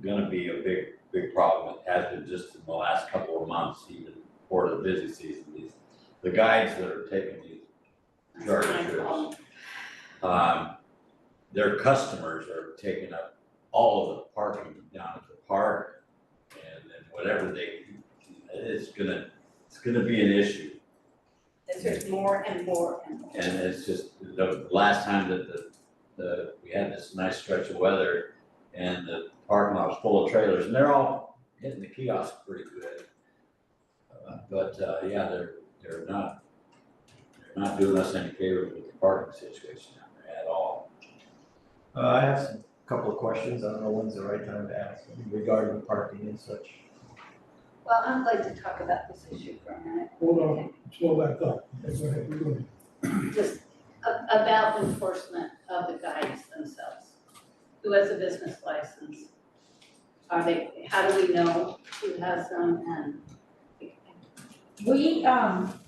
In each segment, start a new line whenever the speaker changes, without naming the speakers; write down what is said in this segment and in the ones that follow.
gonna be a big, big problem. It has been just in the last couple of months, even for the busy season, these, the guides that are taking these
That's
charter
my
trips.
problem.
Um, their customers are taking up all of the parking down at the park. And then whatever they, it's gonna, it's gonna be an issue.
It's just more and more and more.
And it's just, the last time that the, the, we had this nice stretch of weather and the parking lot was full of trailers and they're all hitting the kiosk pretty good. Uh, But, uh, yeah, they're, they're not, they're not doing us any favors with the parking situation down there at all.
Uh, I have some, couple of questions, I don't know when's the right time to ask regarding parking and such.
Well, I'd like to talk about this issue for a minute.
Hold on, slow back up. That's what I'm doing.
just a- about enforcement of the guides themselves. Who has a business license? Are they, how do we know who has them and?
We, um,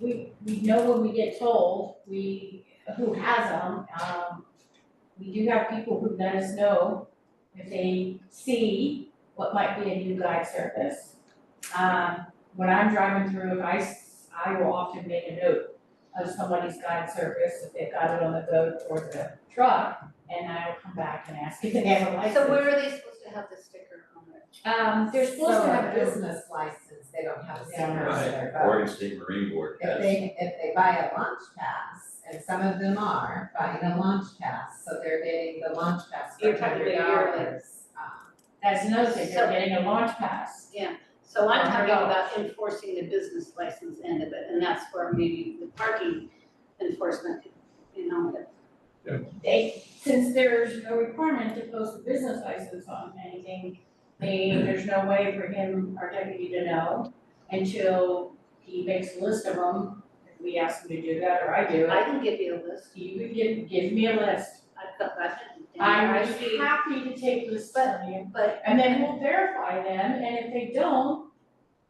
we, we know when we get told, we, who has them, um, we do have people who let us know if they see what might be a new guide service. Um, when I'm driving through, I, s- I will often make a note of somebody's guide service, if they've got it on the boat or the truck, and I'll come back and ask if they have a license.
So where are they supposed to have the sticker on their?
Um, they're supposed to have
So a
business
business license, they don't have a
They don't have
sticker
a
on
Right.
their boat.
Oregon State Marine Board
If
has,
they, if they buy a launch pass, and some of them are buying a launch pass, so they're getting the launch pass for
You're talking
hundred dollars.
about yearly.
Um,
That's another thing,
So-
they're getting a launch pass.
So I'm talking
Right.
about enforcing the business license end of it, and that's where maybe the parking enforcement, you know, if
They, since there's no requirement to post a business license on anything, they, there's no way for him, our deputy, to know until he makes a list of them. If We ask him to do that, or I do
I
it.
can give you a list,
You can give, give me a list.
I've got, I've been.
I'm
I see,
happy to take lists from you,
But
and then we'll verify them, and if they don't,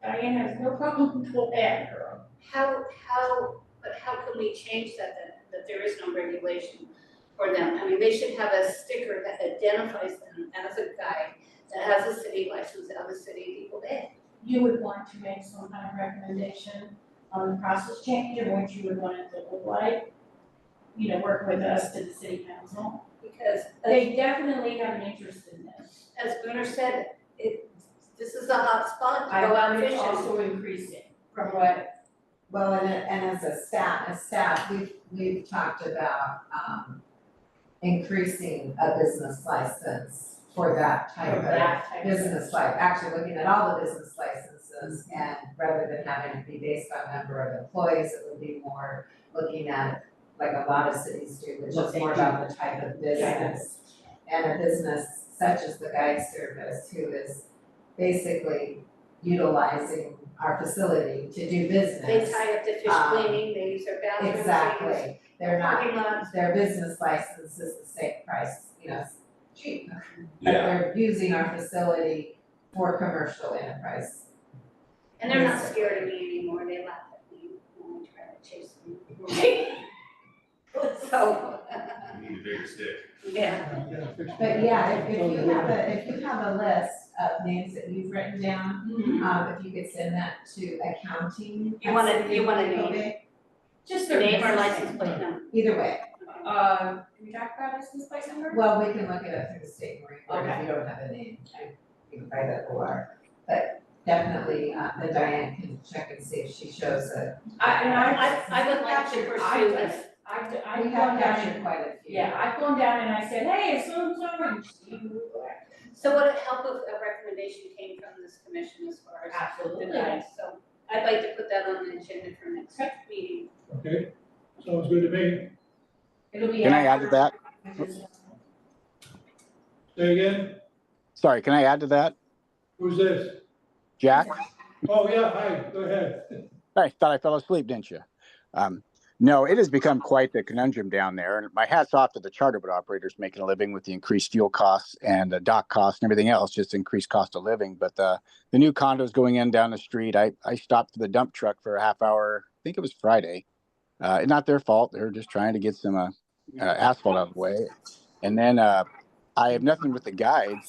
Diane has no problem going after them.
How, how, but how can we change that, that, that there is no regulation for them? I mean, they should have a sticker that identifies them as a guide that has a city license of a city equal day.
you would want to make some kind of recommendation on the process change and what you would want it to look like. You know, work with us to the city council.
Because as,
They definitely have an interest in this.
as Booner said, it, this is a hot spot
I
to go out
want it
fishing.
also increasing from what,
Well, and, and as a staff, as staff, we've, we've talked about, um, increasing a business license for that type
from
of
that type of.
business life, actually looking at all the business licenses and rather than having it be based on number of employees, it would be more looking at like a lot of cities do, which
What
is
they
more
do.
about the type of business. And a business such as the guide service who is basically utilizing our facility to do business.
They tie up the fish
Um,
cleaning, they use their bathrooms, they use
Exactly, they're not,
parking lots.
their business license is the same price, you know, cheap that
yeah,
they're using our facility for commercial enterprise.
And they're not scared of me anymore, they laugh at me when I try to chase them. So,
You need a bigger stick.
yeah,
Yeah, fix it.
But yeah, if, if you have a, if you have a list of names that you've written down,
Mm-hmm.
um, if you could send that to accounting.
You wanna-
at
you wanna
City
name?
Building,
Just their
name or
business
license
name.
plate number.
Either way,
Uh, can we talk about license plate number?
well, we can look it up through the state marine board if you don't have a name, I- you can buy that or. But definitely, uh, then Diane can check and see if she shows a,
I, and
I,
I.
I would like to
Capture, I
pursue
just-
this,
I've, I've
we
gone down
have captured
and,
quite a few.
yeah, I've gone down and I said, hey, it's so, so, and she,
so would it help if a recommendation came from this commission as far as the
absolutely.
guides? So I'd like to put that on the agenda for next
Okay.
meeting.
Okay, sounds good to me.
It'll be.
Can I add
after-
to that?
Say again,
Sorry, can I add to that?
who's this?
Jack?
Oh, yeah, hi, go ahead.
I thought I fell asleep, didn't you? Um, no, it has become quite the conundrum down there. And my hat's off to the charter boat operators making a living with the increased fuel costs and the dock costs and everything else, just increased cost of living. But the, the new condos going in down the street, I, I stopped the dump truck for a half hour. I think it was Friday. Uh, not their fault. They're just trying to get some uh, uh, asphalt out of the way. And then uh, I have nothing with the guides.